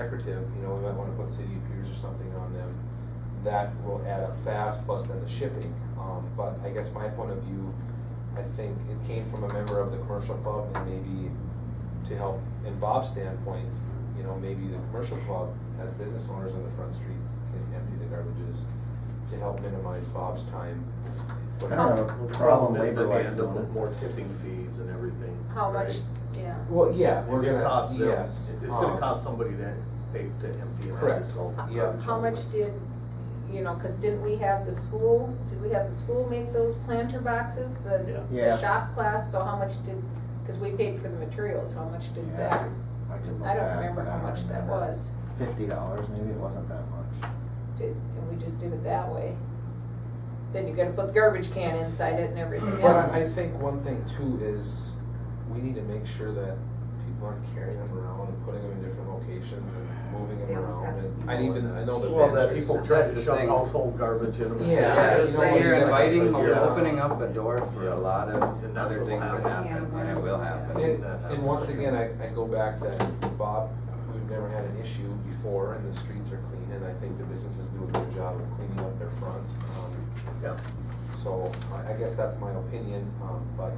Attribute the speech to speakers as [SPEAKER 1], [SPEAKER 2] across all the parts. [SPEAKER 1] decorative, you know, we might wanna put city piers or something on them. That will add up fast, plus then the shipping. Um, but I guess my point of view, I think it came from a member of the commercial club and maybe to help, in Bob's standpoint, you know, maybe the commercial club has business owners on the front street can empty the garbages to help minimize Bob's time.
[SPEAKER 2] I don't have a problem
[SPEAKER 3] is that
[SPEAKER 2] labor
[SPEAKER 3] we
[SPEAKER 2] wise
[SPEAKER 3] end up
[SPEAKER 2] doing
[SPEAKER 3] with
[SPEAKER 2] it.
[SPEAKER 3] More tipping fees and everything.
[SPEAKER 4] How much,
[SPEAKER 3] right?
[SPEAKER 4] yeah.
[SPEAKER 1] Well, yeah, we're
[SPEAKER 3] It
[SPEAKER 1] gonna,
[SPEAKER 3] costs them-
[SPEAKER 1] yes.
[SPEAKER 3] It's gonna
[SPEAKER 1] um,
[SPEAKER 3] cost somebody to pay to empty it out
[SPEAKER 1] Correct.
[SPEAKER 3] yourself.
[SPEAKER 4] How-
[SPEAKER 1] Yeah.
[SPEAKER 4] How much did, you know, cause didn't we have the school, did we have the school make those planter boxes, the,
[SPEAKER 2] Yeah.
[SPEAKER 4] the shop class, so how much did, cause we paid for the materials, how much did
[SPEAKER 2] Yeah,
[SPEAKER 4] that?
[SPEAKER 2] could look
[SPEAKER 4] I don't
[SPEAKER 2] back,
[SPEAKER 4] remember
[SPEAKER 2] but I
[SPEAKER 4] how
[SPEAKER 2] don't
[SPEAKER 4] much that
[SPEAKER 2] remember.
[SPEAKER 4] was,
[SPEAKER 2] Fifty dollars, maybe it wasn't that much.
[SPEAKER 4] did, and we just did it that way. Then you gotta put the garbage can inside it and everything
[SPEAKER 1] But I- I
[SPEAKER 4] else.
[SPEAKER 1] think one thing too is we need to make sure that people aren't carrying them around and putting them in different locations and moving them
[SPEAKER 5] They also
[SPEAKER 1] around.
[SPEAKER 5] have
[SPEAKER 1] and-
[SPEAKER 5] to
[SPEAKER 1] I
[SPEAKER 5] be-
[SPEAKER 1] even, I know the
[SPEAKER 3] Well, that's
[SPEAKER 1] benches.
[SPEAKER 3] people try
[SPEAKER 6] that's
[SPEAKER 3] to
[SPEAKER 6] the
[SPEAKER 3] shove
[SPEAKER 6] thing.
[SPEAKER 3] household garbage in them.
[SPEAKER 1] Yeah,
[SPEAKER 6] Yeah,
[SPEAKER 1] you know what,
[SPEAKER 6] you're
[SPEAKER 1] you gotta-
[SPEAKER 6] inviting, you're
[SPEAKER 1] Yeah.
[SPEAKER 6] opening up a door for a lot of
[SPEAKER 3] And that's
[SPEAKER 6] other
[SPEAKER 3] what
[SPEAKER 6] things that
[SPEAKER 3] will happen.
[SPEAKER 6] happen, and it will happen.
[SPEAKER 1] And, and once again, I, I go back to Bob, we've never had an issue before and the streets are clean and I think the businesses do a good job of cleaning up their front. Um,
[SPEAKER 3] Yeah.
[SPEAKER 1] So I, I guess that's my opinion, um, but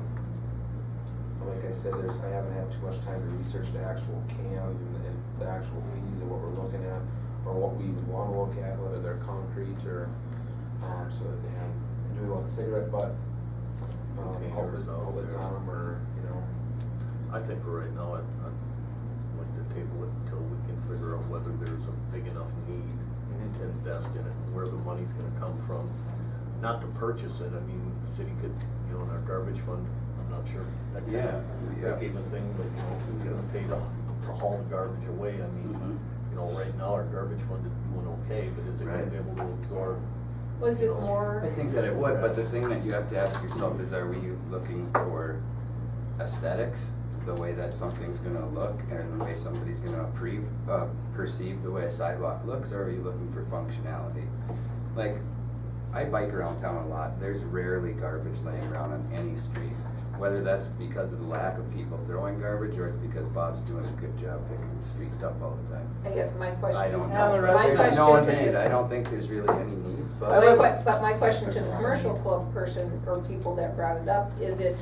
[SPEAKER 1] like I said, there's, I haven't had too much time to research the actual cans and the, and the actual fees of what we're looking at or what we even wanna look at, whether they're concrete or, um, so that they have, do we want cigarette butt? Um,
[SPEAKER 3] Containers out
[SPEAKER 1] outlets
[SPEAKER 3] there.
[SPEAKER 1] on them or, you know.
[SPEAKER 3] I think for right now, I'd, I'd like to table it until we can figure out whether there's a big enough need to invest in it, where the money's gonna come from. Not to purchase it, I mean, the city could, you know, in our garbage fund, I'm not sure. That kind of-
[SPEAKER 6] Yeah, yeah.
[SPEAKER 3] That gave a thing, but you know, who's gonna pay to, to haul the garbage away, I mean, you know, right now, our garbage fund is doing okay, but is it gonna
[SPEAKER 6] Right.
[SPEAKER 3] be able to absorb?
[SPEAKER 4] Was it
[SPEAKER 6] I
[SPEAKER 4] more,
[SPEAKER 6] think that it would, but the thing that you have to ask yourself is, are we looking for aesthetics? The way that something's gonna look and the way somebody's gonna approve, uh, perceive the way a sidewalk looks, or are you looking for functionality? Like, I bike around town a lot, there's rarely garbage laying around on any street. Whether that's because of the lack of people throwing garbage, or it's because Bob's doing a good job picking the streets up all the time.
[SPEAKER 4] I guess my question.
[SPEAKER 6] I don't
[SPEAKER 5] Now
[SPEAKER 6] know.
[SPEAKER 5] the rest-
[SPEAKER 4] My
[SPEAKER 6] There's no
[SPEAKER 4] question to
[SPEAKER 6] need,
[SPEAKER 4] this-
[SPEAKER 6] I don't think there's really any need, but.
[SPEAKER 4] My que- But my question to the commercial club person or people that brought it up, is it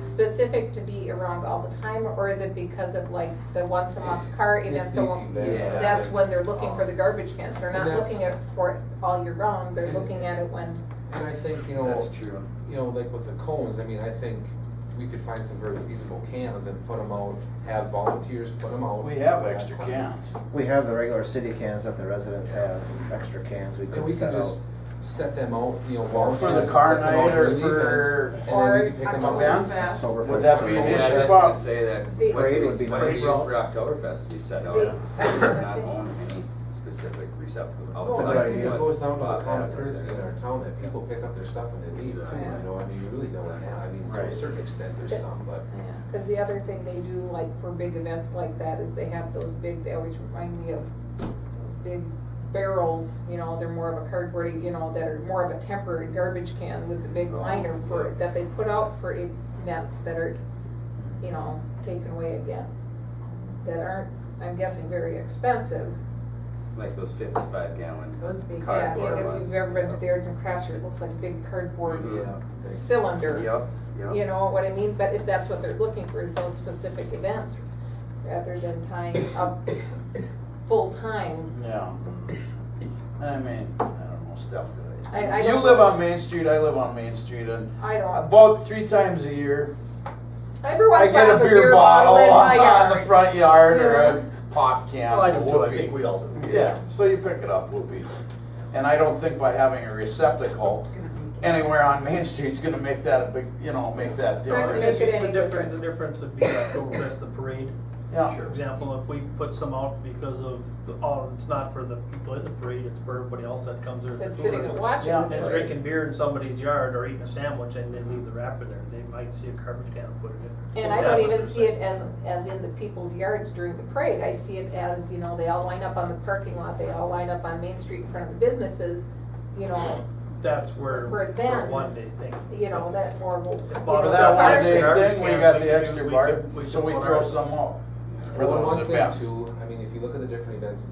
[SPEAKER 4] specific to be around all the time? Or is it because of like the once a month car event,
[SPEAKER 1] It's these
[SPEAKER 4] so
[SPEAKER 1] events,
[SPEAKER 6] Yeah.
[SPEAKER 4] that's when they're looking for the garbage cans? They're not
[SPEAKER 1] And that's-
[SPEAKER 4] looking at for it all year round, they're looking at it when,
[SPEAKER 1] And I think, you know,
[SPEAKER 6] That's true.
[SPEAKER 1] you know, like with the cones, I mean, I think we could find some very feasible cans and put them out, have volunteers put them out.
[SPEAKER 5] We have extra cans.
[SPEAKER 2] We have the regular city cans that the residents have, extra cans we
[SPEAKER 1] And we
[SPEAKER 2] could
[SPEAKER 1] can
[SPEAKER 2] set out.
[SPEAKER 1] just set them out, you know,
[SPEAKER 5] Or
[SPEAKER 1] volunteers.
[SPEAKER 5] for the
[SPEAKER 1] can
[SPEAKER 5] car
[SPEAKER 1] set them out
[SPEAKER 5] night or
[SPEAKER 1] the
[SPEAKER 5] for,
[SPEAKER 1] event,
[SPEAKER 4] or
[SPEAKER 1] And then we can pick them up.
[SPEAKER 5] events.
[SPEAKER 4] Oktoberfest.
[SPEAKER 2] Sober
[SPEAKER 5] Would
[SPEAKER 2] for
[SPEAKER 5] that
[SPEAKER 2] sober.
[SPEAKER 5] be an
[SPEAKER 2] Yeah,
[SPEAKER 6] Yeah,
[SPEAKER 5] issue?
[SPEAKER 6] I just
[SPEAKER 5] Bob?
[SPEAKER 6] gonna say that,
[SPEAKER 4] The-
[SPEAKER 6] what do
[SPEAKER 2] Parade
[SPEAKER 6] we,
[SPEAKER 2] would be
[SPEAKER 6] what do we
[SPEAKER 2] nice.
[SPEAKER 6] use for Oktoberfest? We set out,
[SPEAKER 4] The-
[SPEAKER 6] "Oh, so we does not own any specific receptacles
[SPEAKER 1] No,
[SPEAKER 6] outside.
[SPEAKER 1] but I think
[SPEAKER 2] idea.
[SPEAKER 1] Oh, it
[SPEAKER 6] what
[SPEAKER 1] goes down to the
[SPEAKER 6] Bob
[SPEAKER 1] common
[SPEAKER 6] has out
[SPEAKER 1] courtesy
[SPEAKER 6] there.
[SPEAKER 1] in our town that people pick up their stuff and they leave too,
[SPEAKER 3] Exactly.
[SPEAKER 1] you know, I mean, you really don't have, I mean, to a
[SPEAKER 2] Right.
[SPEAKER 1] certain extent, there's some, but.
[SPEAKER 4] Because the other thing they do, like for big events like that, is they have those big, they always remind me of those big barrels, you know, they're more of a cardboard, you know, that are more of a temporary garbage can with the big
[SPEAKER 6] Oh,
[SPEAKER 4] liner for,
[SPEAKER 6] yeah.
[SPEAKER 4] that they put out for events that are, you know, taken away again. That aren't, I'm guessing, very expensive.
[SPEAKER 6] Like those fifty-five gallon
[SPEAKER 5] Those big-
[SPEAKER 4] Yeah,
[SPEAKER 6] cardboard ones.
[SPEAKER 4] and if you've ever been to the Arts and Crafts, it looks like a big cardboard
[SPEAKER 6] Mhm.
[SPEAKER 4] cylinder.
[SPEAKER 6] Yep, yep.
[SPEAKER 4] You know what I mean, but if that's what they're looking for, is those specific events, rather than tying up full-time.
[SPEAKER 5] Yeah. I mean, I don't know, stuff that
[SPEAKER 4] I,
[SPEAKER 5] I.
[SPEAKER 4] I
[SPEAKER 5] You
[SPEAKER 4] don't.
[SPEAKER 5] live on Main Street, I live on Main Street, and
[SPEAKER 4] I don't.
[SPEAKER 5] about three times a year,
[SPEAKER 4] Every
[SPEAKER 5] I
[SPEAKER 4] once in a
[SPEAKER 5] get
[SPEAKER 4] while,
[SPEAKER 5] a beer bottle
[SPEAKER 4] in my
[SPEAKER 5] on on the
[SPEAKER 4] yard.
[SPEAKER 5] front yard or
[SPEAKER 4] Yeah.
[SPEAKER 5] a pop can,
[SPEAKER 3] Well, I do too, I
[SPEAKER 5] whoopee.
[SPEAKER 3] think we all do.
[SPEAKER 5] Yeah, so you pick it up, whoopee. And I don't think by having a receptacle anywhere on Main Street is gonna make that a big, you know, make that
[SPEAKER 4] Trying to make
[SPEAKER 5] difference.
[SPEAKER 4] it
[SPEAKER 7] The
[SPEAKER 4] any
[SPEAKER 7] difference, the
[SPEAKER 4] different.
[SPEAKER 7] difference would be Oktoberfest, the parade.
[SPEAKER 5] Yeah.
[SPEAKER 7] For example, if we put some out because of, the oh, it's not for the people at the parade, it's for everybody else that comes there.
[SPEAKER 4] That's sitting and watching.
[SPEAKER 5] Yeah.
[SPEAKER 4] the
[SPEAKER 7] And
[SPEAKER 4] parade.
[SPEAKER 7] drinking beer in somebody's yard or eating a sandwich and then leave the wrapper there, they might see a garbage can and put it in.
[SPEAKER 4] And I
[SPEAKER 7] That's
[SPEAKER 4] don't
[SPEAKER 7] what
[SPEAKER 4] even
[SPEAKER 7] they're
[SPEAKER 4] see it
[SPEAKER 7] saying.
[SPEAKER 4] as, as in the people's yards during the parade, I see it as, you know, they all line up on the parking lot, they all line up on Main Street in front of the businesses, you know,
[SPEAKER 7] That's where,
[SPEAKER 4] For
[SPEAKER 7] for
[SPEAKER 4] them.
[SPEAKER 7] a one day thing.
[SPEAKER 4] you know, that more will.
[SPEAKER 7] For that
[SPEAKER 5] For
[SPEAKER 4] you know,
[SPEAKER 5] that
[SPEAKER 4] the
[SPEAKER 5] one
[SPEAKER 4] fire
[SPEAKER 5] day
[SPEAKER 4] station.
[SPEAKER 5] thing, we got
[SPEAKER 7] We
[SPEAKER 5] the
[SPEAKER 7] could-
[SPEAKER 5] extra
[SPEAKER 7] we
[SPEAKER 5] bar,
[SPEAKER 7] could- we
[SPEAKER 5] so
[SPEAKER 7] could
[SPEAKER 5] we
[SPEAKER 7] put
[SPEAKER 5] throw
[SPEAKER 7] our-
[SPEAKER 5] some out for
[SPEAKER 1] Well,
[SPEAKER 5] those
[SPEAKER 1] one thing
[SPEAKER 5] events.
[SPEAKER 1] too, I mean, if you look at the different events in